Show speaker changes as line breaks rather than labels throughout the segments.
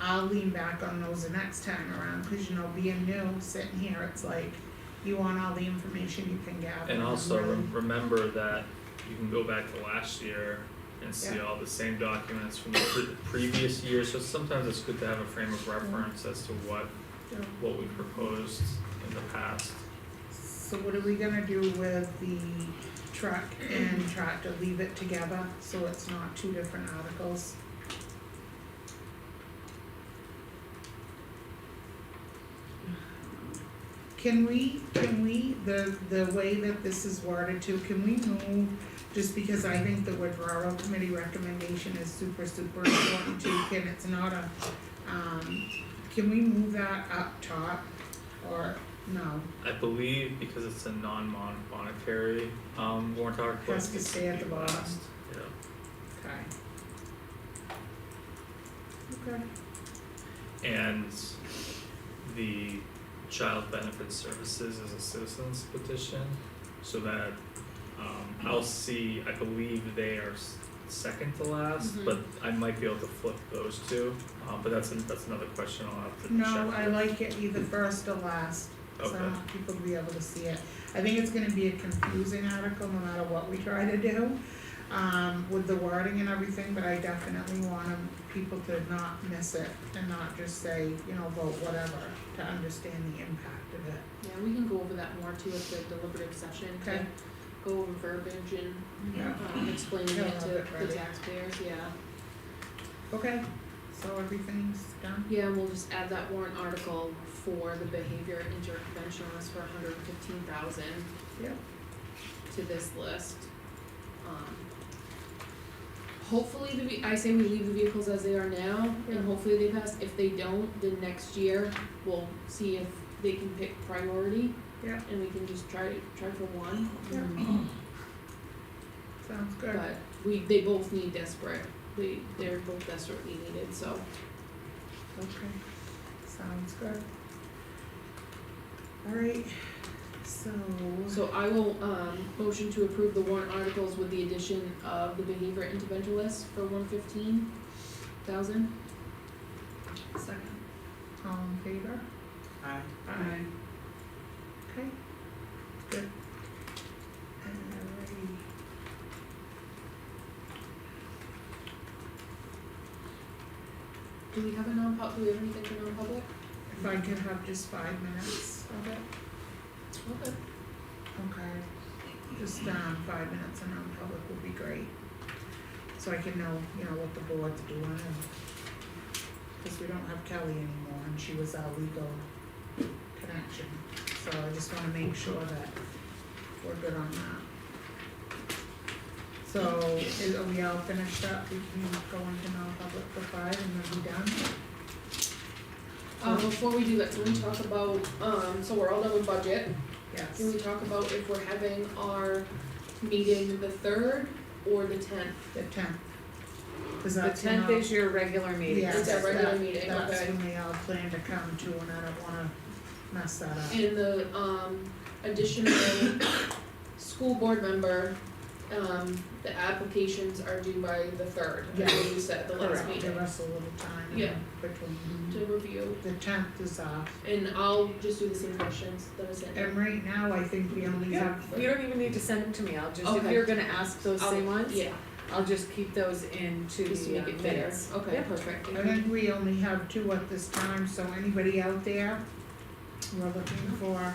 I'll lean back on those the next time around, cause you know, being new, sitting here, it's like, you want all the information you can gather.
And also
really-
rem- remember that you can go back to last year and see all the same documents from the pre- previous year, so sometimes it's good to have a frame of
Mm-hmm.
reference as to what,
Yeah.
what we proposed in the past.
So what are we gonna do with the truck and tractor, leave it together, so it's not two different articles? Can we, can we, the, the way that this is worded to, can we move, just because I think the withdrawal committee recommendation is super, super important too, can, it's not a, um, can we move that up top, or, no?
I believe because it's a non-monetary, um, warrant article,
Has
it
to
needs to
stay at
be
the bottom.
last, yeah.
Okay. Okay.
And the Child Benefit Services is a citizens petition, so that, um, I'll see, I believe they are s- second to last,
Mhm.
but I might be able to flip those two, um, but that's, an- that's another question I'll have to check.
No, I like um, it either first or last, so
Okay.
people will be able to see it. I think it's gonna be a confusing article no matter what we try to do, um, with the wording and everything, but I definitely want 'em- people to not miss it and not just say, you know, vote whatever, to understand the impact of it.
Yeah, we can go over that more too at the deliberative session,
Okay.
to go over verbiage and,
Yeah.
um, explaining
Yeah,
it to
I'll get
the
ready.
taxpayers, yeah.
Okay, so everything's done?
Yeah, and we'll just add that warrant article for the behavior interventionist for hundred and fifteen thousand
Yep.
to this list. Um, Hopefully the, ve- I say we leave the vehicles as they are now,
Yeah.
and hopefully they pass, if they don't, then next year, we'll see if they can pick priority.
Yeah.
And we can just try, try for one.
Yeah. Sounds good.
But we, they both need desperate, they, they're both desperately needed, so.
Okay, sounds good. Alright, so,
So I will, um, motion to approve the warrant articles with the addition of the behavior intervention list for one fifteen thousand.
second, all in favor?
Aye.
Aye. Okay, good. Alrighty.
Do we have a non-pub, do we have anything for non-public?
If I could have just five minutes of it,
Okay.
okay, just, um, five minutes and non-public would be great. So I can know, you know, what the board's doing and, cause we don't have Kelly anymore and she was our legal connection. So I just wanna make sure that we're good on that. So, is, are we all finished up? We can go into non-public for five and then be done?
Um, before we do that, can we talk about, um, so we're all done with budget,
Yes.
can we talk about if we're having our meeting the third or the tenth?
The tenth. Cause
The
that's when
tenth
all-
is your regular meeting.
Yes,
It's our regular
that-
meeting,
That's
okay.
when we all plan to come to and I don't wanna mess that up.
And the um additional school board member, um the applications are due by the third, I believe you said the last
Correct,
meeting
give us a little time in
Yeah. Mm-hmm.
between.
to review.
The tenth is off.
And I'll just do the same questions that I sent.
And right now, I think we only
Yeah,
have,
you don't even need to send them to me, I'll just, if
Okay.
you're gonna ask those
I'll-
same ones,
Yeah,
I'll just keep those into
just to
the
make
uh,
it fair.
minutes.
Okay,
Yeah.
perfect.
I think we only have two at this time, so anybody out there, we're looking for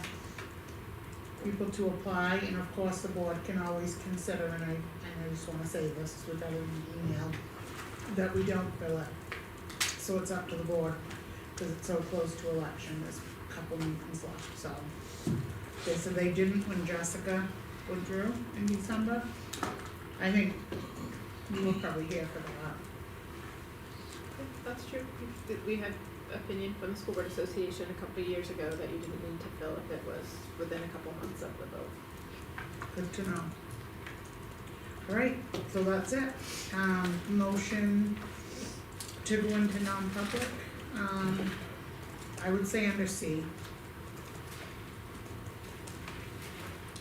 people to apply, and of course, the board can always consider, and I, and I just wanna say this with every email, that we don't fill it. So it's up to the board, cause it's so close to election, there's a couple meetings left, so. Okay, so they didn't when Jessica withdrew in December. I think you were probably here for that.
That's true. We've- We had opinion from the School Board Association a couple of years ago that you didn't need to fill if it was within a couple months of the vote.
Good to know. Alright, so that's it. Um, motion to go into non-public, um, I would say under C.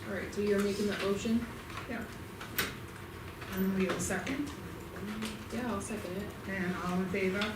Alright, so you're making that motion?
And we have a second,
Yeah, I'll second it.
and all in favor?